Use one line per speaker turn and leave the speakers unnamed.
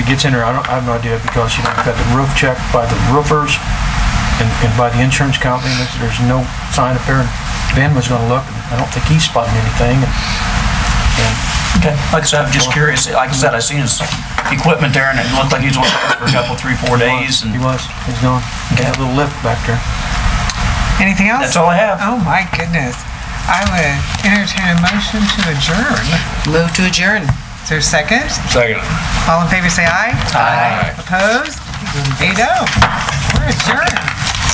gets in there, I don't, I have no idea, because, you know, we've got the roof checked by the roofers and, and by the insurance company, and there's, there's no sign up there, and Ben was gonna look, and I don't think he's spotting anything, and, and
Okay, like I said, I'm just curious, like I said, I seen his equipment there and it looked like he was on it for a couple, three, four
he was-
days and
He was, he's gone, he had a little lift back there.
Anything else?
that's all I have.
Oh my goodness. I would entertain a motion to adjourn.
Move to adjourn.
Is there a second?
Second.
All in favor say aye.
Aye.
Opposed? Veto. We're adjourned.